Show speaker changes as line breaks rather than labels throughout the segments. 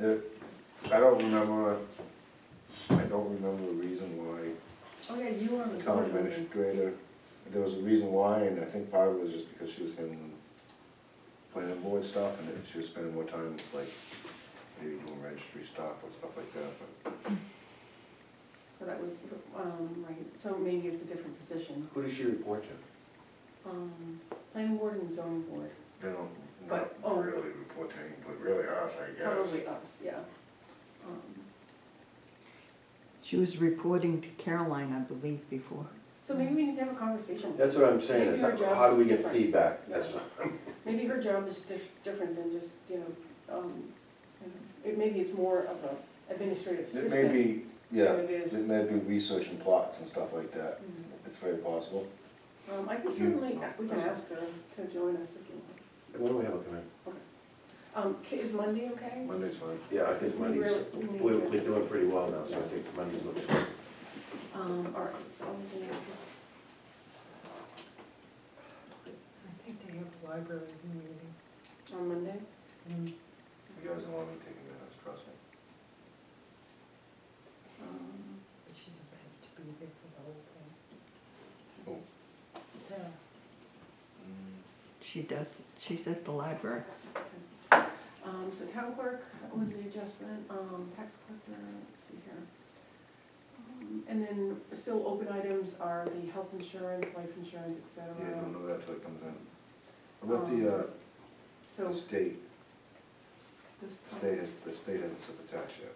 It- Uh, I don't remember, I don't remember the reason why
Oh, yeah, you were on
the
the
town
board. weren't you?
administrator, there was a reason why, and I think part of it was just because she was handling planning board stuff, and she was spending more time like maybe doing registry stuff or stuff like that, but
So that was, um, right, so maybe it's a different position.
Who does she report to?
Um, planning board and zoning board,
they don't,
But,
not
oh.
really report to anybody, really us, I guess.
probably us, yeah. Um,
She was reporting to Caroline, I believe, before.
So maybe we need to have a conversation.
That's what I'm saying, is
Your
how do we
job's
get
different.
feedback? That's,
Maybe her job is dif- different than just, you know, um, you know, it, maybe it's more of a administrative
It
assistant.
may be, yeah,
than It
it
is.
may be research and plots and stuff like that,
Mhm.
it's very possible.
Um, I can certainly, we can ask her to join us if you want.
when do we have her come in?
Um, K- is Monday okay?
Monday's fine.
Yeah, I think
We
Monday's,
really- we need
we're,
to-
we're doing pretty well now, so I think Monday looks good.
Um, all right, so I'm gonna have
I think they have a library meeting.
to- on Monday.
You guys don't want me taking minutes, trust me.
Um,
But she doesn't have to be there for the whole thing. So,
Mm.
She does, she's at the library.
Um, so town clerk was the adjustment, um, tax collector, let's see here. Um, And then still open items are the health insurance, life insurance, et cetera.
Yeah, don't know that till it comes in. What about the, uh,
Um, So
the state,
this,
the state has, the state hasn't set the tax yet.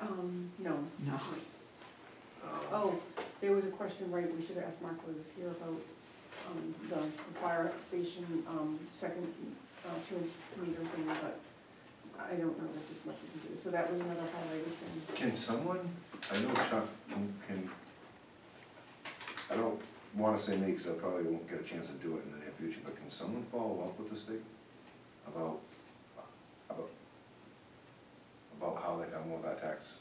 um, no.
No.
Uh,
Oh, there was a question, right, we should have asked Mark when he was here about, um, the fire station, um, second, uh, two inch meter thing, but I don't know that this much we can do, so that was another highlighted thing.
Can someone, I know Chuck can, can, I don't wanna say me, cause I probably won't get a chance to do it in the near future, but can someone follow up with the state about, about, about how they come with our tax,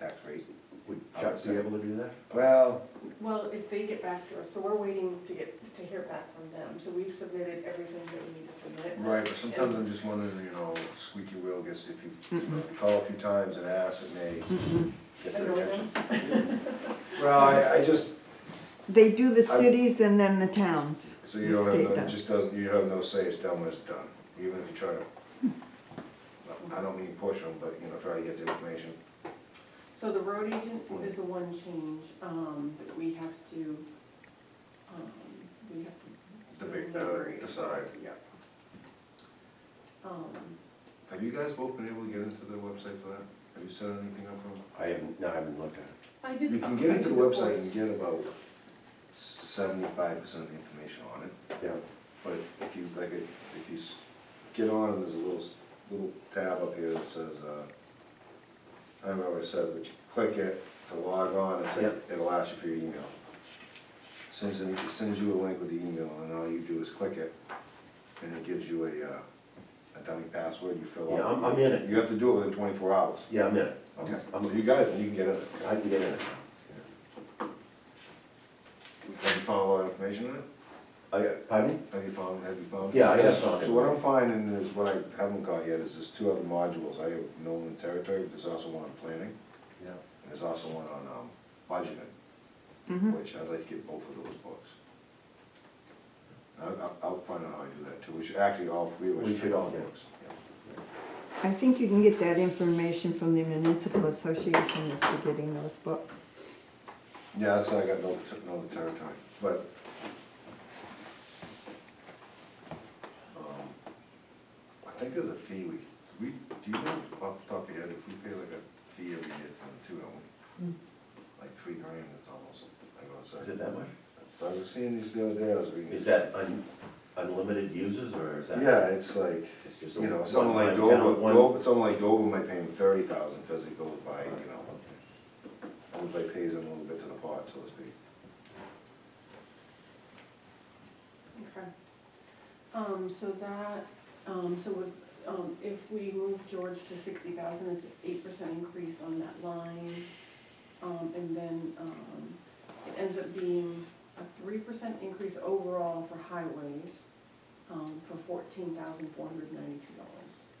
tax rate?
Would Chuck be able to do that?
Well,
Well, if they get back to us, so we're waiting to get, to hear back from them, so we've submitted everything that we need to submit.
Right, but sometimes I'm just wondering, you know, squeaky wheel gets, if you, you know, if you call a few times and ask, it may get their
Annoy
attention. Well, I, I just,
They do the
I-
cities and then the towns.
so you
The
don't
state
have, no- it
does.
just doesn't, you have no say, it's done when it's done, even if you try to. I don't mean push them, but, you know, try to get the information.
So the road agent is the one change, um, that we have to, um, we have to.
Debate, uh,
deliberate.
decide.
Yep. Um,
Have you guys both been able to get into the website for that? Have you set anything up for them?
I haven't, no, I haven't looked at it.
I did.
You can get into the
I did
website and
voice.
get about seventy-five percent of the information on it.
Yeah,
But if you, like, if you s- get on, and there's a little, s- little tab up here that says, uh, I don't know what it says, but you click it to log on, it's like,
Yep.
it'll ask you for your email. Sends, an- it sends you a link with the email, and all you do is click it, and it gives you a, uh, a dummy password, you fill out.
Yeah, I'm- I'm in it.
You have to do it within twenty-four hours.
yeah, I'm in it.
Okay,
I'm-
so you got it, you can get it.
I can get in it.
Have you found a lot of information in it?
I, pardon?
Have you found, have you found?
Yeah, I have found it.
So what I'm finding is, what I haven't got yet, is there's two other modules, I have Nolan Territory, but there's also one on planning,
Yeah.
and there's also one on, um, budgeting,
Mhm.
which I'd like to get both of those books. I'll, I'll, I'll find out how I do that too, we should, actually, all three of us
We
should
should
have
all
the
get it.
books. yeah.
I think you can get that information from the municipal association as to getting those books.
Yeah, that's how I got Nolan, Ter- Nolan Territory, but. um, I think there's a fee we, we, do you know off the top of your head if we pay like a fee every year for the two, don't we? like three grand, it's almost, like I was saying.
Is it that much?
I was seeing these the other day, I was reading.
Is that un- unlimited users, or is that?
Yeah, it's like,
It's just a
you know, someone like
one-time count,
Dover,
one-
Dover, someone like Dover might pay him thirty thousand, cause it goes by, you know, everybody pays him a little bit to the pot, so to speak.
Okay. Um, so that, um, so with, um, if we move George to sixty thousand, it's an eight percent increase on that line. Um, and then, um, it ends up being a three percent increase overall for highways, um, for fourteen thousand four hundred ninety-two dollars.